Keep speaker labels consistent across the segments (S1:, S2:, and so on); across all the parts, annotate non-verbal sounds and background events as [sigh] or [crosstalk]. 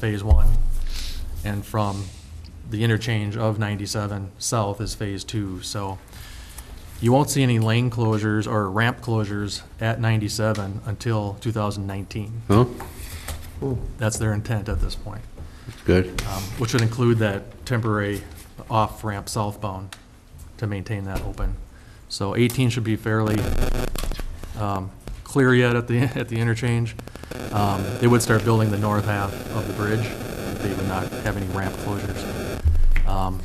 S1: Phase One, and from the interchange of 97 south is Phase Two. So you won't see any lane closures or ramp closures at 97 until 2019.
S2: Huh?
S1: That's their intent at this point,
S2: That's good.
S1: um, which would include that temporary off-ramp southbound to maintain that open. So 18 should be fairly um, clear yet at the, [laughs] at the interchange. Um, They would start building the north half of the bridge. They would not have any ramp closures. Um,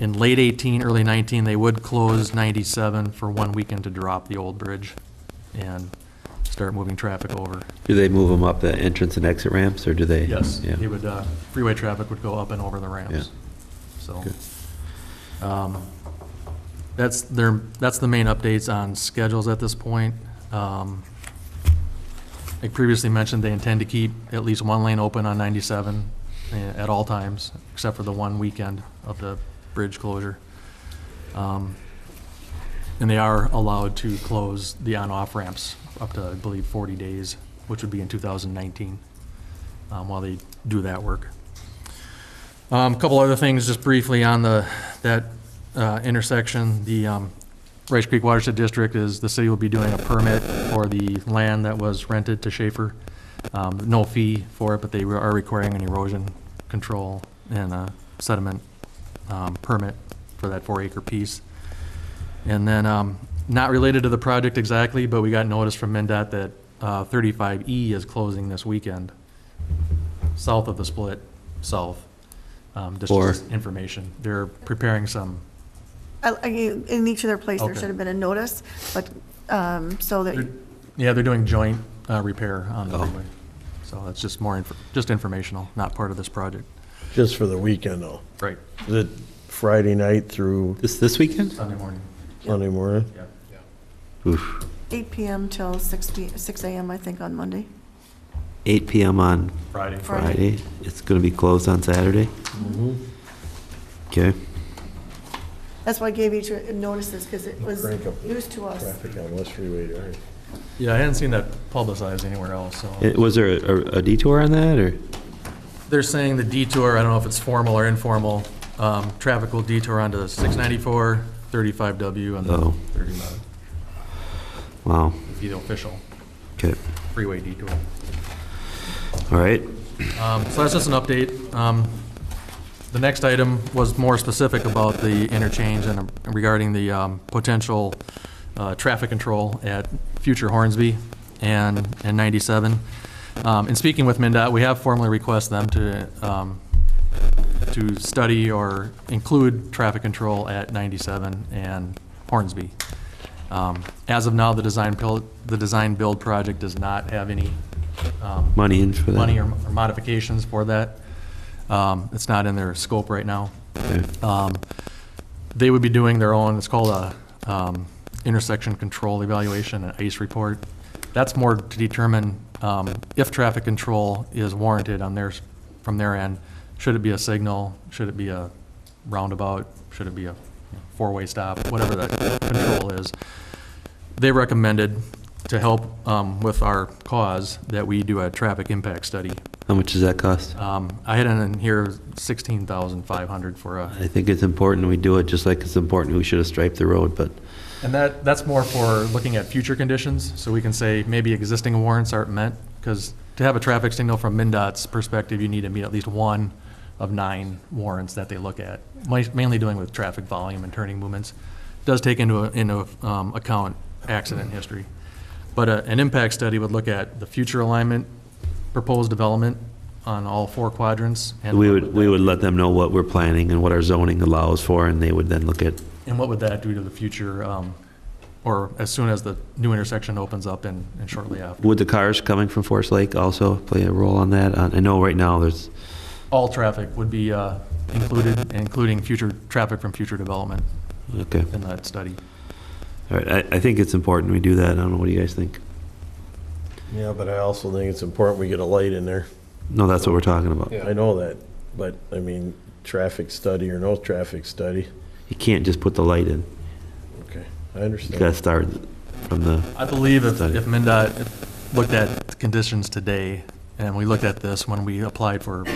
S1: In late 18, early 19, they would close 97 for one weekend to drop the old bridge and start moving traffic over.
S2: Do they move them up the entrance and exit ramps, or do they?
S1: Yes,
S2: Yeah.
S1: he would, uh, freeway traffic would go up and over the ramps, so. um, That's their, that's the main updates on schedules at this point. Um, Like previously mentioned, they intend to keep at least one lane open on 97 eh, at all times, except for the one weekend of the bridge closure. Um, And they are allowed to close the on-off ramps up to, I believe, 40 days, which would be in 2019 um, while they do that work. Um, Couple other things, just briefly on the, that uh, intersection, the um, Rice Creek Watershed District is, the city will be doing a permit for the land that was rented to Schaefer. Um, No fee for it, but they are requiring an erosion control and a sediment um, permit for that four-acre piece. And then, um, not related to the project exactly, but we got notice from MinDOT that uh, 35E is closing this weekend, south of the split, south. Um, Just
S2: For-
S1: just information. They're preparing some,
S3: I- I- In each of their place, there
S1: Okay.
S3: should have been a notice, but, um, so that,
S1: They're- yeah, they're doing joint uh, repair on the
S2: Oh.
S1: freeway. So that's just more, inf- just informational, not part of this project.
S4: Just for the weekend, though.
S1: Right.
S4: Is it Friday night through
S2: This, this weekend?
S1: Sunday morning,
S4: Sunday morning?
S1: yeah.
S2: Oof.
S3: 8 PM till 6 p, 6 AM, I think, on Monday.
S2: 8 PM on
S1: Friday.
S3: Friday.
S2: Friday. It's going to be closed on Saturday?
S1: Mm-hmm.
S2: Okay.
S3: That's why I gave each notices, because it was
S4: Crank up the
S3: news to us.
S4: Traffic on West Freeway Drive.
S1: Yeah, I hadn't seen that publicized anywhere else, so.
S2: Eh, Was there a a detour on that, or?
S1: They're saying the detour, I don't know if it's formal or informal, um, traffic will detour onto 694, 35W, and
S2: Oh.
S1: then 39,
S2: Wow.
S1: be the official
S2: Okay.
S1: freeway detour.
S2: All right.
S1: Um, So that's just an update. Um, The next item was more specific about the interchange and regarding the um, potential uh, traffic control at future Hornsby and and 97. Um, In speaking with MinDOT, we have formally requested them to um, to study or include traffic control at 97 and Hornsby. Um, As of now, the design, pil- the design build project does not have any. um,
S2: Money in for that?
S1: Money or or modifications for that. Um, It's not in their scope right now.
S2: Okay.
S1: Um, They would be doing their own, it's called a um, intersection control evaluation, an ICE report. That's more to determine um, if traffic control is warranted on theirs, from their end. Should it be a signal? Should it be a roundabout? Should it be a four-way stop? Whatever that control is. They recommended to help um, with our cause that we do a traffic impact study.
S2: How much does that cost?
S1: Um, I had in here 16,500 for a
S2: I think it's important we do it, just like it's important we should have striped the road, but,
S1: And that, that's more for looking at future conditions, so we can say maybe existing warrants aren't met, because to have a traffic signal from MinDOT's perspective, you need to meet at least one of nine warrants that they look at, mi- mainly doing with traffic volume and turning movements. Does take into, into um, account accident history. But a- an impact study would look at the future alignment, proposed development on all four quadrants. and
S2: we
S1: what
S2: would, we would let them know what we're planning and what our zoning allows for, and they would then look at,
S1: And what would that do to the future, um, or as soon as the new intersection opens up and and shortly after?
S2: would the cars coming from Forest Lake also play a role on that? Uh, I know right now there's,
S1: All traffic would be uh, included, including future, traffic from future development
S2: okay.
S1: in that study.
S2: All right, I, I think it's important we do that. I don't know, what do you guys think?
S4: Yeah, but I also think it's important we get a light in there.
S2: No, that's what we're talking about.
S4: I know that, but, I mean, traffic study or no traffic study,
S2: You can't just put the light in.
S4: okay,
S2: You gotta
S4: I understand.
S2: start from the,
S1: I believe if
S2: Study.
S1: if MinDOT looked at conditions today, and we looked at this when we applied for